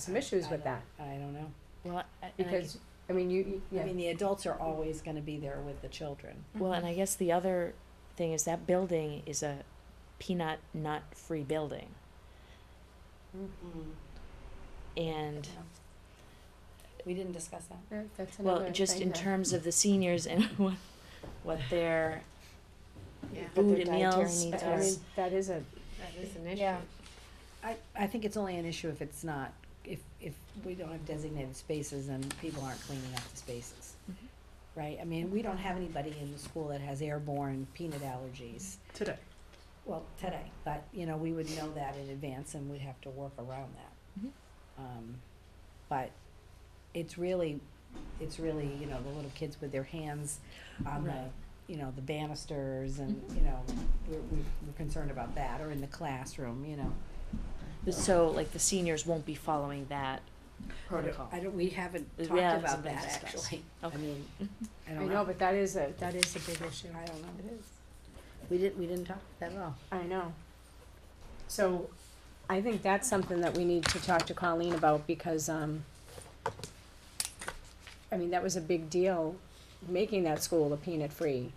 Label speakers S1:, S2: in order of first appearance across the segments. S1: some issues
S2: I
S1: with
S2: don't-
S1: that,
S2: I don't know.
S3: Well, I- and I
S1: because, I mean, you, you-
S2: I
S1: yeah,
S2: mean, the adults are always gonna be there with the children.
S3: gue- well, and I guess the other thing is that building is a peanut nut free building, and
S2: We didn't discuss that.
S1: Yeah, that's another
S3: well, just
S1: thing
S3: in
S1: that-
S3: terms of the seniors and what what their
S4: Yeah,
S3: But
S4: that
S3: their dietary needs
S1: I
S3: are-
S1: mean, that is a,
S4: is an issue.
S2: Yeah. I, I think it's only an issue if it's not, if, if we don't have designated spaces and people aren't cleaning up the spaces.
S3: Mhm.
S2: Right, I mean, we don't have anybody in the school that has airborne peanut allergies,
S4: Today.
S2: well, today, but, you know, we would know that in advance and we'd have to work around that.
S3: Mhm.
S2: Um, but it's really, it's really, you know, the little kids with their hands on the,
S3: Right.
S2: you know, the banisters and, you know, we're, we're we're concerned about that, or in the classroom, you know.
S3: so like the seniors won't be following that protocol.
S2: I don't, we haven't
S3: We
S2: talked
S3: haven't
S2: about
S3: been
S2: that
S3: discussed.
S2: actually. I
S3: Okay.
S2: mean, I
S1: I
S2: don't
S1: know,
S2: know.
S1: but that is a, that is a big issue.
S2: I don't know.
S1: It is.
S2: We didn't, we didn't talk about that at all.
S1: I know. So, I think that's something that we need to talk to Colleen about, because, um, I mean, that was a big deal, making that school a peanut-free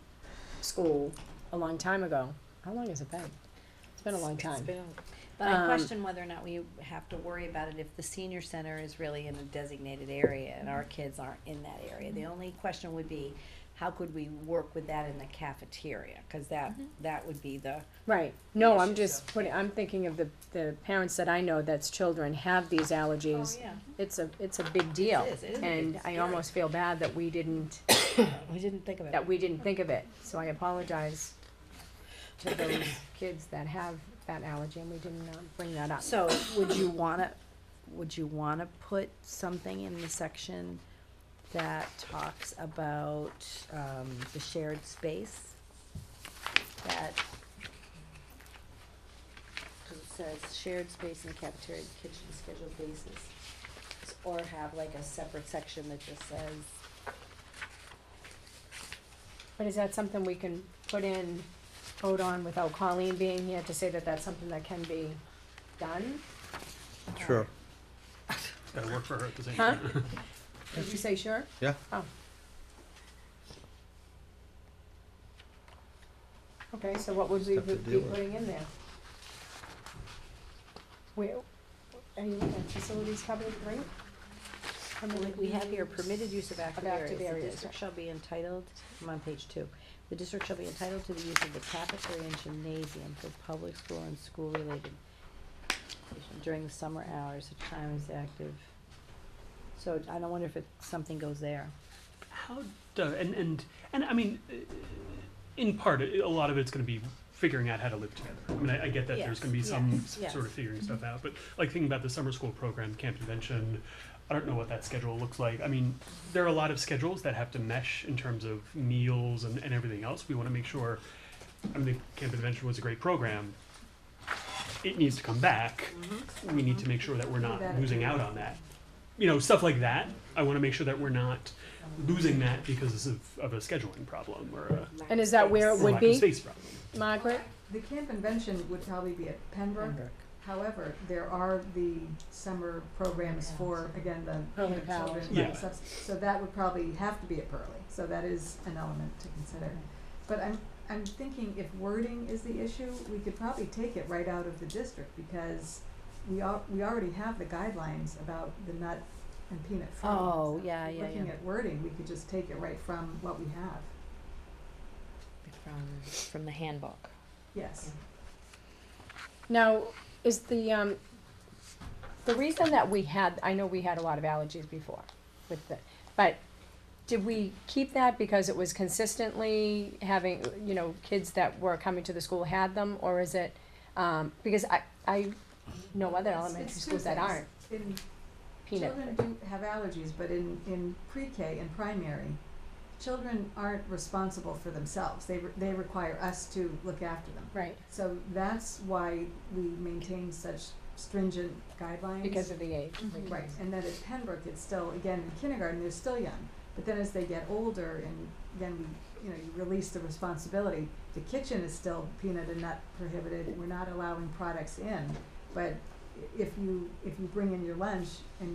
S1: school a long time ago. How long has it been? It's been a long time.
S2: But I
S1: Um,
S2: question whether or not we have to worry about it if the senior center is really in a designated area and our kids aren't in that area. The only question would be, how could we work with that in the cafeteria? Cause that,
S1: Mm-hmm.
S2: that would be the,
S1: Right, no, I'm
S2: issue,
S1: just putting, I'm thinking of the, the parents that I know that's children have these allergies.
S2: Oh, yeah.
S1: It's a, it's a big deal.
S2: is, it is a big
S1: Oh, And I
S2: scary.
S1: almost feel bad that we didn't,
S2: We didn't think of it.
S1: that we didn't think of it, so I apologize to those kids that have that allergy and we didn't um, bring that up.
S2: So would you wanna, would you wanna put something in the section that talks about, um, the shared space? That. Cause it says shared space in the cafeteria, and kitchen scheduled basis, S- or have like a separate section that just says,
S1: But is that something we can put in, vote on without Colleen being here to say that that's something that can be done?
S5: Sure. Gotta work for her at the same
S1: Huh?
S5: time.
S1: Did you say sure?
S5: Yeah.
S1: Oh. Okay, so what would we
S5: Have to
S1: be
S5: deal with it.
S1: putting in there? Where, are you looking at facilities covered, right? I mean,
S2: we have here permitted use of active
S1: Of active
S2: areas, the
S1: areas,
S2: district
S1: right.
S2: shall be entitled, I'm on page two. The district shall be entitled to the use of the cafeteria and gymnasium for public school and school-related education during the summer hours, such time as active. So I don't wonder if it, something goes there.
S5: How does and and and I mean, uh, in part, i- a lot of it's going to be figuring out how to live together. I mean, I, I get that there's going to be
S2: Yes,
S5: some
S2: yes,
S5: s-
S2: yes.
S5: sort of figuring stuff out, but like thinking about the summer school program, camp convention. I don't know what that schedule looks like. I mean, there are a lot of schedules that have to mesh in terms of meals and, and everything else. We want to make sure. I mean, the camp convention was a great program. It needs to come back. We need to make sure that we're not
S1: That-
S5: losing out on that. You know, stuff like that. I want to make sure that we're not losing that because of, of a scheduling problem or a
S1: And is that where it
S5: or
S1: would
S5: lack of
S1: be,
S5: space problem.
S1: Margaret?
S6: The camp convention would probably be at Pembroke.
S2: Pembroke.
S6: However, there are the summer programs for, again, the
S1: Pearly
S6: you know, children.
S5: Yeah.
S6: right, subs- So that would probably have to be at Pearly. So that is an element to consider. But I'm, I'm thinking if wording is the issue, we could probably take it right out of the district because we al- we already have the guidelines about the nut and peanut free.
S2: Oh, yeah, yeah, yeah.
S6: Looking at wording, we could just take it right from what we have.
S3: from from the handbook.
S6: Yes.
S1: Now, is the, um, the reason that we had, I know we had a lot of allergies before with the, but did we keep that because it was consistently having, you know, kids that were coming to the school had them, or is it, um, because I, I know other
S6: It's-
S1: elementary
S6: it's two
S1: schools that
S6: things.
S1: aren't
S6: In
S1: peanut.
S6: Children do have allergies, but in, in pre-K and primary, children aren't responsible for themselves. They, re- they require us to look after them.
S1: Right,
S6: So that's why we maintain such stringent guidelines.
S1: because of the age.
S6: Right, and then at Pembroke, it's still, again, in kindergarten, they're still young. But then as they get older and then we, you know, you release the responsibility, the kitchen is still peanut and nut prohibited. We're not allowing products in, but
S1: if you, if you bring in your lunch and